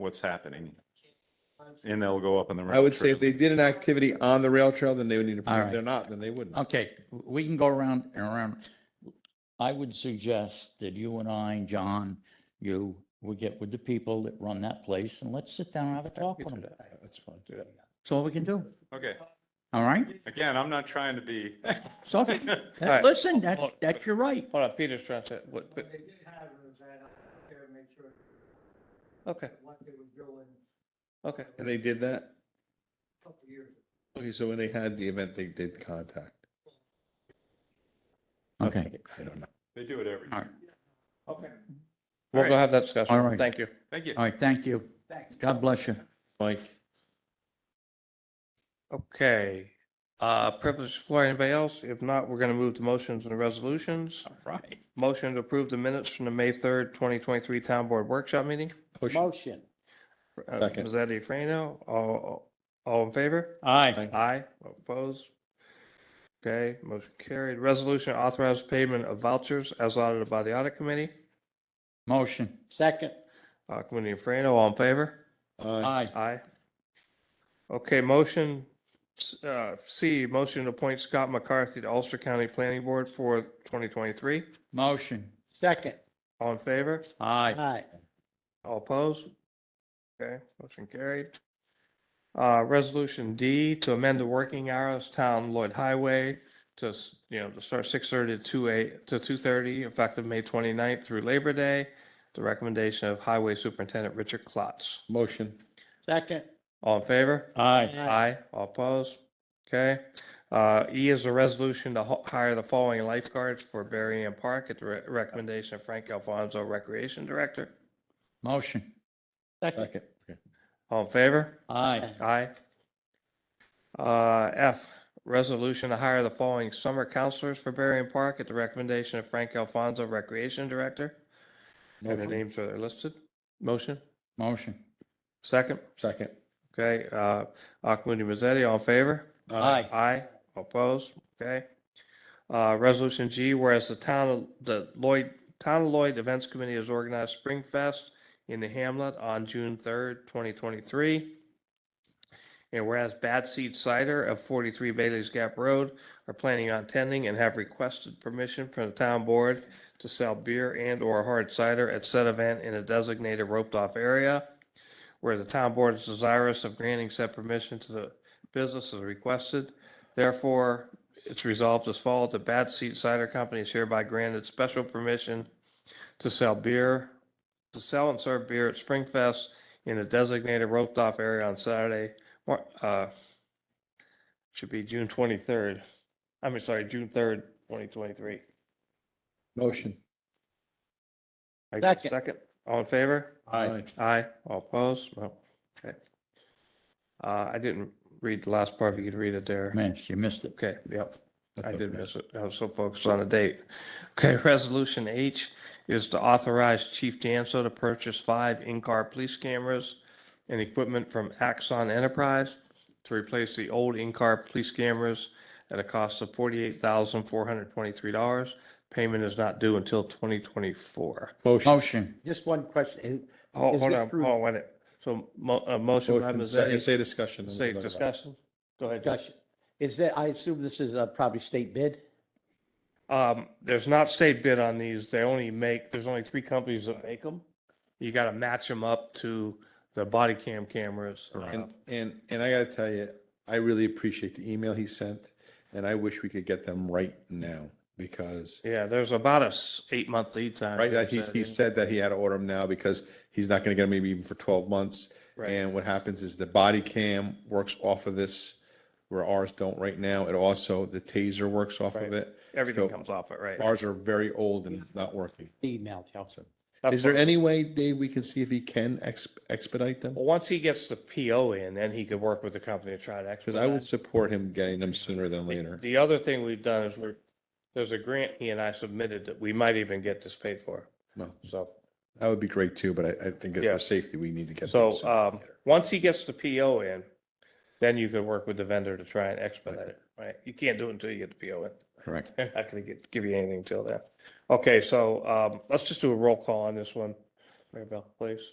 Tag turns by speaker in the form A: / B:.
A: what's happening. And they'll go up in the.
B: I would say
A: round trip.
B: if they did an activity on the rail trail, then they would need to
C: All
B: approve. If
C: right. Um,
B: They're not, then they wouldn't.
C: Okay, w- we can go around and around. I would suggest that you and I, John, you, we get with the people that run that place and let's sit down and have a talk with them.
B: That's fine.
C: That's all we can do.
A: Okay,
C: All right?
A: again, I'm not trying to be.
C: So, that-
D: right.
C: listen, that's, that's your right.
D: Hold on, Peter's trying to, what,
E: But they did have Rosanna there to make sure
D: okay,
E: that what they were doing
D: okay.
B: And they did that?
E: a couple years ago.
B: Okay, so when they had the event, they did contact.
C: Okay,
B: I don't know.
A: They do it every,
C: all right,
D: Okay.
A: All
D: We'll
A: right.
D: go have that
C: All right.
D: discussion. Thank you.
A: thank you.
C: all right, thank you. God bless you.
B: Mike,
D: Okay. Uh, privilege floor, anybody else? If not, we're gonna move to motions and resolutions.
C: All right.
D: Motion to approve the minutes from the May third, twenty twenty-three Town Board Workshop Meeting.
B: motion,
C: Motion.
D: Uh,
B: Second.
D: Mazzetti, Frano, all, all in favor?
C: Aye.
B: Aye.
D: Aye, opposed? Okay, motion carried. Resolution authorized payment of vouchers as audited by the audit committee.
C: Motion. Second.
D: Uh, Committee Frano, all in favor?
B: uh,
C: Aye.
D: Aye. Okay, motion, uh, C, motion to appoint Scott McCarthy to Ulster County Planning Board for 2023.
C: Motion.
F: Second.
D: All in favor?
C: Aye.
F: Aye.
D: All opposed? Okay, motion carried. Uh, resolution D to amend the working hours town Lloyd Highway to, you know, to start six thirty to two eight, to two thirty, effective May 29th through Labor Day. The recommendation of Highway Superintendent Richard Klotz.
B: motion,
F: Second.
D: All in favor?
C: Aye.
D: Aye, all opposed? Okay. Uh, E is a resolution to ho- hire the following lifeguards for Berry Ann Park at the re- recommendation of Frank Alfonso, Recreation Director.
C: Motion.
F: Second.
B: second. Okay.
D: All in favor?
C: Aye.
D: Aye. Uh, F, resolution to hire the following summer counselors for Berry Ann Park at the recommendation of Frank Alfonso, Recreation Director. And the
B: Motion.
D: names are listed. Motion,
C: Motion.
D: second.
B: Second.
D: Okay, uh, Akmundi Mazzetti, all in favor?
B: Uh,
C: Aye.
D: Aye, opposed, okay. Uh, resolution G, whereas the town, of the Lloyd, Town of Lloyd Events Committee has organized Spring Fest in the hamlet on June third, twenty twenty-three. And whereas Bad Seed Cider of forty-three Bailey's Gap Road are planning on attending and have requested permission from the town board to sell beer and or hard cider at said event in a designated roped-off area. Where the town board is desirous of granting said permission to the business as requested. Therefore, it's resolved as follows. The Bat Seat Cider Company is hereby granted special permission to sell beer, to sell and serve beer at Springfest in a designated roped-off area on Saturday, Mar- uh, should be June 23rd. I mean, sorry, June 3rd, 2023.
B: Motion.
D: I get a
F: Second.
D: Second, all in favor?
B: Aye.
D: Aye, all opposed? No, okay. Uh, I didn't read the last part, if you could read it there.
C: Man, you missed it.
D: Okay, yep.
B: That's
D: I did
B: okay.
D: miss it. I was so focused on the date. Okay, resolution H is to authorize Chief Danso to purchase five in-car police cameras and equipment from Axon Enterprise to replace the old in-car police cameras at a cost of forty-eight thousand, four hundred twenty-three dollars. Payment is not due until twenty twenty-four.
B: Motion,
C: Motion.
F: Just one question.
D: Oh,
F: Is
D: hold
F: it
D: on,
F: through-
D: Paul, wait a minute. So mo- a motion by
B: motion, second,
D: Mazzetti,
B: say discussion. then
D: say
B: we'll talk about it.
D: discussion. Go ahead. Jeff.
F: Discussion. Is that, I assume this is uh, probably state bid?
D: Um, there's not state bid on these. They only make, there's only three companies that make them. You gotta match them up to the body cam cameras.
B: And, Um, and, and I gotta tell you, I really appreciate the email he sent and I wish we could get them right now because
D: Yeah, there's about a s- eight month lead time.
B: right, that he, he said that he had to order them now because he's not gonna get them maybe even for twelve months.
D: Right.
B: And what happens is the body cam works off of this where ours don't right now. It also, the taser works off
D: Right.
B: of it.
D: Everything
B: So
D: comes off it, right?
B: Ours are very old and not working.
F: Email, Chelsea.
D: That's
B: Is there
D: what-
B: any way, Dave, we can see if he can ex- expedite them?
D: Well, once he gets the PO in, then he could work with the company to try to
B: Because I would
D: expedite.
B: support him getting them sooner than later.
D: The other thing we've done is we're, there's a grant he and I submitted that we might even get this paid for.
B: No.
D: So
B: That would be great too, but I, I think that
D: Yeah.
B: for safety, we need to get.
D: So,
B: that sooner than
D: um,
B: later.
D: once he gets the PO in, then you could work with the vendor to try and expedite it, right? You can't do it until you get the PO in.
C: Correct.
D: They're not gonna get, give you anything until then. Okay, so, um, let's just do a roll call on this one. Mary Bell, please.